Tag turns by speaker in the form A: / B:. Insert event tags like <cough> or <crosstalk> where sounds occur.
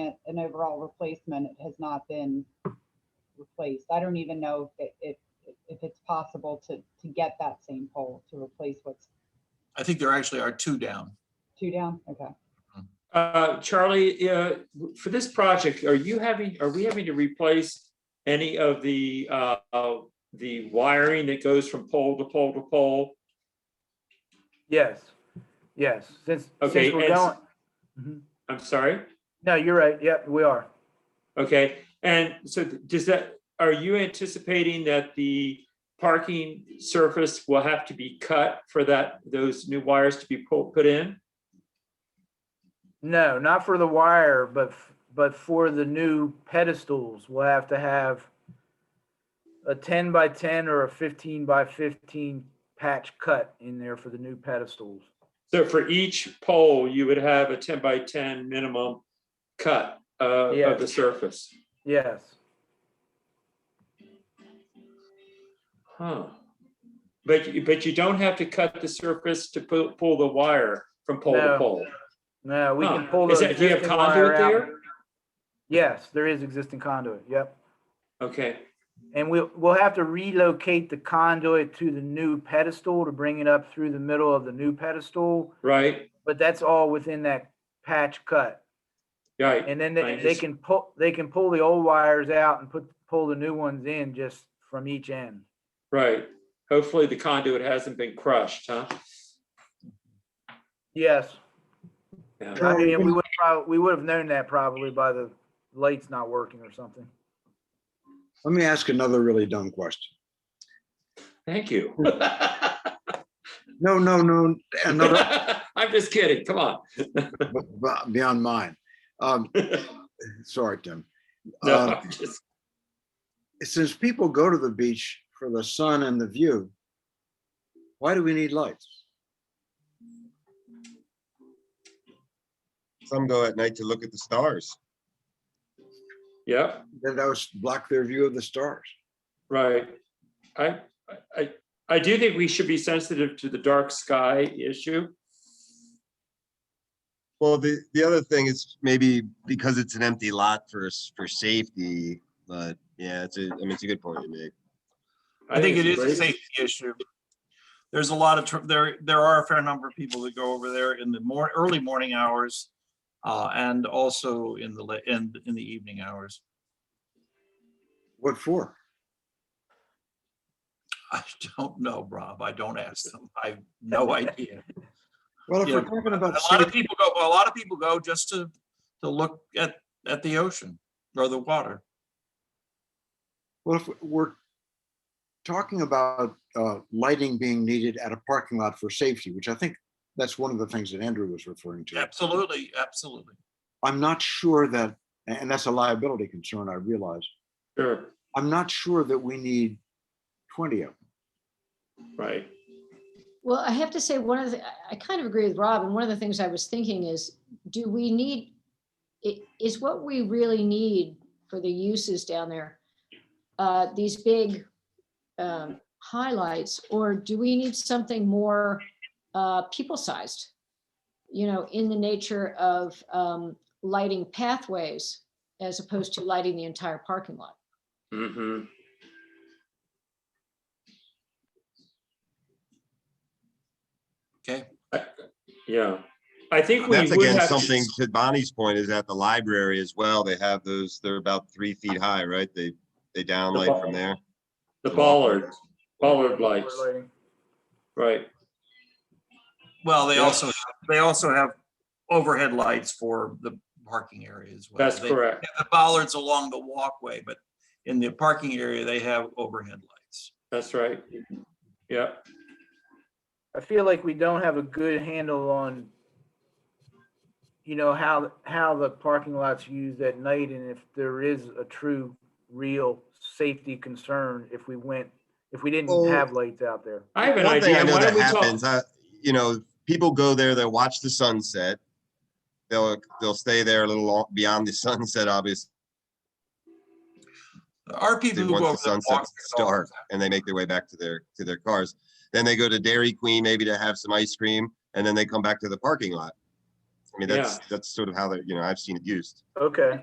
A: a, an overall replacement. It has not been replaced. I don't even know if, it- if, if it's possible to, to get that same pole to replace what's
B: I think there actually are two down.
A: two down. Okay.
C: Uh, Charlie, uh, for this project, are you having, are we having to replace any of the, uh, uh, the wiring that goes from pole to pole to pole?
D: Yes, yes, since,
C: Okay,
D: since we're
C: and s- Mm-hmm.
D: going. Mhm.
C: I'm sorry?
D: No, you're right. Yep, we are.
C: Okay, and so does that, are you anticipating that the parking surface will have to be cut for that, those new wires to be put, put in?
D: No, not for the wire, but, f- but for the new pedestals, we'll have to have a ten by ten or a fifteen by fifteen patch cut in there for the new pedestals.
C: So for each pole, you would have a ten by ten minimum cut uh,
D: Yeah.
C: of the surface?
D: Yes,
C: Huh. But, you- but you don't have to cut the surface to pull, pull the wire from pole to
D: No.
C: pole.
D: no, we can
C: Huh.
D: pull the
C: Is that, do you have
D: existing wire
C: conduit
D: out.
C: there?
D: Yes, there is existing conduit, yep.
C: Okay,
D: And we'll, we'll have to relocate the conduit to the new pedestal to bring it up through the middle of the new pedestal.
C: right,
D: But that's all within that patch cut.
C: right.
D: And then they,
C: Right,
D: they
C: it's-
D: can pull, they can pull the old wires out and put, pull the new ones in just from each end.
C: Right. Hopefully the conduit hasn't been crushed, huh?
D: Yes,
C: Yeah.
D: I mean, we would probably, we would have known that probably by the lights not working or something.
E: Let me ask another really dumb question.
C: Thank you.
E: No, no, no,
B: <laughs>
E: another
C: <laughs> I'm just kidding, come on.
E: b- b- beyond mine. Um, <laughs> sorry, Tim.
C: No,
E: Um,
B: Uh.
C: I'm just-
E: since people go to the beach for the sun and the view, why do we need lights?
F: Some go at night to look at the stars.
C: Yep,
E: Then that was block their view of the stars.
C: right. I, I, I do think we should be sensitive to the dark sky issue.
F: Well, the, the other thing is maybe because it's an empty lot for, s- for safety, but yeah, it's a, I mean, it's a good point you make.
B: I think it is
C: it's
B: a
C: great.
B: safety issue. There's a lot of, tr- there, there are a fair number of people that go over there in the more, early morning hours uh, and also in the, la- in, in the evening hours.
E: What for?
B: I <laughs> don't know, Rob. I don't ask them. I have no idea.
E: Well, if we're
B: Yeah.
E: talking
B: A
E: about
B: lot of
E: safety,
B: people go, a lot of people go just to, to look at, at the ocean or the water.
E: well, if we're talking about uh, lighting being needed at a parking lot for safety, which I think that's one of the things that Andrew was referring to.
B: Absolutely, absolutely.
E: I'm not sure that, and that's a liability concern, I realize.
C: Sure,
E: I'm not sure that we need 20 of them.
C: right.
G: Well, I have to say, one of the, I- I kind of agree with Rob, and one of the things I was thinking is, do we need, i- is what we really need for the uses down there, uh, these big um, highlights, or do we need something more uh, people-sized? You know, in the nature of um, lighting pathways as opposed to lighting the entire parking lot?
C: Mm-hmm.
B: Okay.
C: Yeah, I think we
F: That's
C: would
F: again,
C: have. to-
F: something to Bonnie's point is at the library as well. They have those, they're about three feet high, right? They, they downlight from there.
C: The bollard, bollard lights,
D: Lighting.
C: right,
B: Well, they
C: Yeah.
B: also, they also have overhead lights for the parking area as well.
C: that's
B: They-
C: correct.
B: have the bollards along the walkway, but in the parking area, they have overhead lights.
C: That's right. Yeah,
D: I feel like we don't have a good handle on, you know, how, how the parking lot's used at night and if there is a true, real safety concern if we went, if we didn't
F: Well-
D: have lights out there.
C: I have an
F: One thing
C: idea.
F: I know
C: Why
F: that
C: don't we talk-
F: happens, I, you know, people go there, they watch the sunset. They'll, they'll stay there a little lo- beyond the <laughs> sunset, obviously,
B: There are people who go over
F: once the
B: there and walk
F: sunset's
B: their
F: dark
B: dogs.
F: and they make their way back to their, to their cars. Then they go to Dairy Queen maybe to have some ice cream and then they come back to the parking lot. I mean, that's, that's sort of how they're, you know, I've seen it used.
D: Okay,